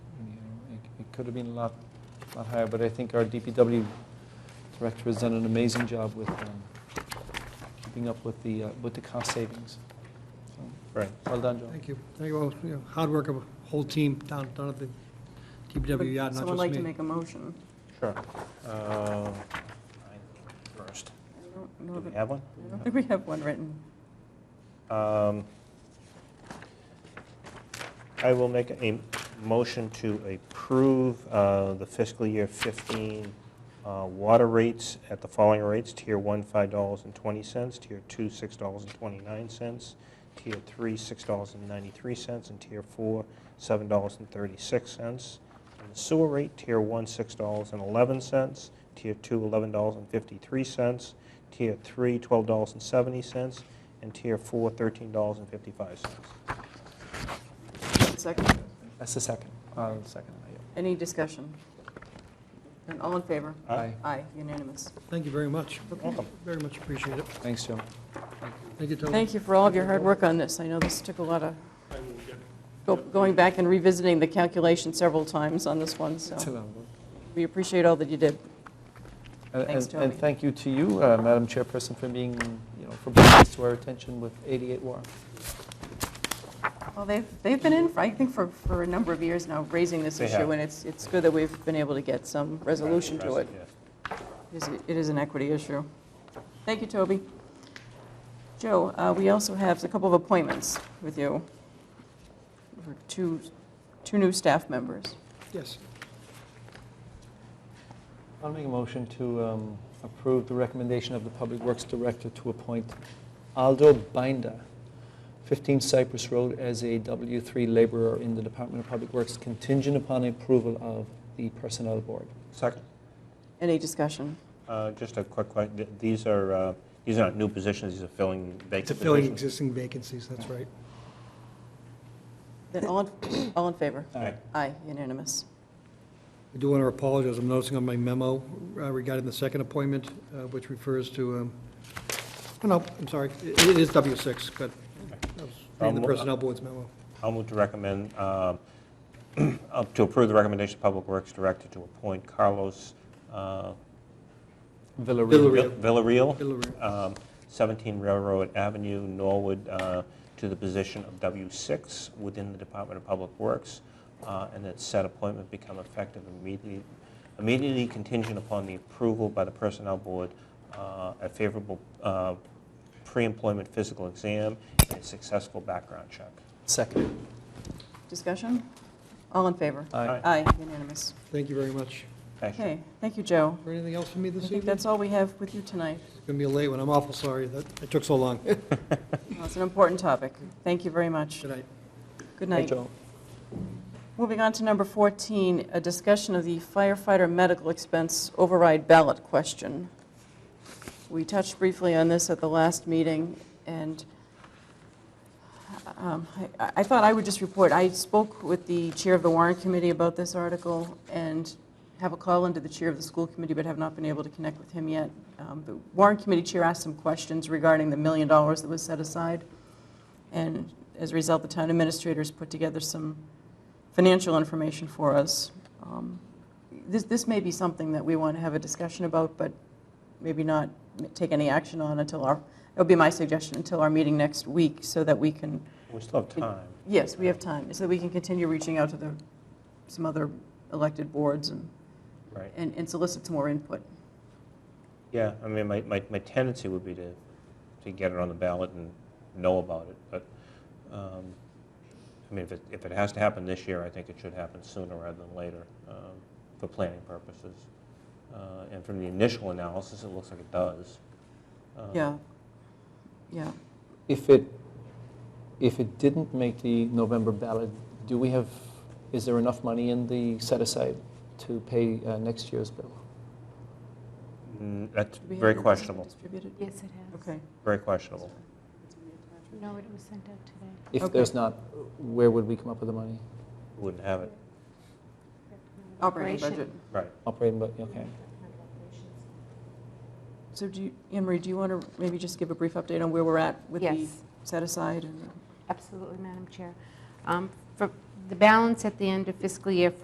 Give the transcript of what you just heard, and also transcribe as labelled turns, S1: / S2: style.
S1: could have been a lot, lot higher, but I think our DPW director has done an amazing job with um, keeping up with the, uh, with the cost savings. So,
S2: Right.
S1: Well done, Joe.
S3: Thank you. Thank you. all. You know, Hard work of a whole team down, down at the DPW yard, not
S4: Someone like
S3: just
S4: to
S3: me.
S4: make a motion?
S2: Sure. Uh, First,
S4: I don't
S2: do
S4: know
S2: we
S4: that-
S2: have one?
S4: I don't think we have one written.
S2: Um, I will make a motion to approve uh, the fiscal year 15 uh, water rates at the following rates. Tier 1, $5.20, Tier 2, $6.29, Tier 3, $6.93, and Tier 4, $7.36. And the Sewer rate, Tier 1, $6.11, Tier 2, $11.53, Tier 3, $12.70, and Tier 4, $13.55.
S4: Second,
S1: That's the second, uh, second, yeah.
S4: any discussion? And all in favor?
S2: Aye.
S4: Aye, unanimous.
S3: Thank you very much.
S2: Welcome.
S3: Very much appreciate it.
S1: Thanks, Joe.
S3: Thank you, Tony.
S4: Thank you for all of your hard work on this. I know this took a lot of, go- going back and revisiting the calculation several times on this one,
S1: It's a
S4: so
S1: lot of work.
S4: we appreciate all that you did.
S1: And-
S4: Thanks,
S1: and- And
S4: Toby.
S1: thank you to you, uh, Madam Chairperson, for being, you know, for bringing this to our attention with 88 War.
S4: Well, they've, they've been in, for- I think, for, for a number of years now, raising this
S2: They
S4: issue,
S2: have.
S4: and it's, it's good that we've been able to get some resolution to it.
S2: Yes.
S4: It is- It is an equity issue. Thank you, Toby. Joe, uh, we also have a couple of appointments with you. for Two, two new staff members.
S3: Yes.
S1: I'll make a motion to um, approve the recommendation of the Public Works Director to appoint Aldo Binder, 15 Cypress Road, as a W3 laborer in the Department of Public Works contingent upon approval of the Personnel Board.
S2: Second,
S4: Any discussion?
S2: uh, just a quick question. Th- These are, uh, these aren't new positions, these are filling vacant
S3: It's a filling
S2: positions.
S3: existing vacancies, that's right.
S4: Then all, in- all in favor?
S2: Aye.
S4: Aye, unanimous.
S3: I do want to apologize. I'm noticing on my memo uh, regarding the second appointment, uh, which refers to, um, oh, no, I'm sorry, it it is W6, but I was reading
S2: Um,
S3: the Personnel Board's memo.
S2: I'll move to recommend, um, uh, to approve the recommendation of Public Works Director to appoint Carlos uh,
S1: Villarreal.
S3: Villarreal.
S2: Vil- Villarreal,
S3: Villarreal.
S2: um, 17 Railroad Avenue, Norwood, uh, to the position of W6 within the Department of Public Works, uh, and that said appointment become effective immediately immediately contingent upon the approval by the Personnel Board, uh, a favorable uh, pre-employment physical exam, and successful background check.
S1: Second.
S4: Discussion? All in favor?
S1: Aye.
S4: Aye, unanimous.
S3: Thank you very much.
S2: Thanks, Jim.
S4: Okay, thank you, Joe.
S3: Is there anything else for me
S4: I
S3: this
S4: think
S3: evening?
S4: that's all we have with you tonight.
S3: It's going to be a late one. I'm awful sorry that it took so long. Good
S4: Well, It's an important topic. Thank you very much.
S3: night.
S4: Good
S1: Hey,
S4: night.
S1: Joe.
S4: Moving on to number 14, a discussion of the firefighter medical expense override ballot question. We touched briefly on this at the last meeting, and um, I I thought I would just report, I spoke with the chair of the warrant committee about this article and have a call into the chair of the school committee, but have not been able to connect with him yet. Um, The warrant committee chair asked some questions regarding the million dollars that was set aside, and as a result, the town administrators put together some financial information for us. Um, This, this may be something that we want to have a discussion about, but maybe not m- take any action on until our, it'll be my suggestion, until our meeting next week, so that we can,
S2: We still have time.
S4: yes, we have time, so that we can continue reaching out to the, some other elected boards and,
S2: Right.
S4: and and solicit some more input.
S2: Yeah, I mean, my, my, my tendency would be to, to get it on the ballot and know about it, but, um, I mean, if it, if it has to happen this year, I think it should happen sooner rather than later, um, for planning purposes. Uh, and from the initial analysis, it looks like it does. Um,
S4: Yeah, yeah.
S1: If it, if it didn't make the November ballot, do we have, is there enough money in the set aside to pay uh, next year's bill?
S2: mm, That's
S4: Do we have
S2: very
S4: it
S2: questionable,
S4: Distributed,
S5: Yes, it has.
S4: okay.
S2: very questionable.
S5: No, it was sent out today.
S1: If
S4: Okay.
S1: there's not, where would we come up with the money?
S2: Wouldn't have it,
S4: Operating budget.
S2: right.
S1: Operating, but, okay.
S4: So do you, Anne Marie, do you want to maybe just give a brief update on where we're at with the
S5: Yes.
S4: set aside and?
S5: Absolutely, Madam Chair. Um, For the balance at the end of fiscal year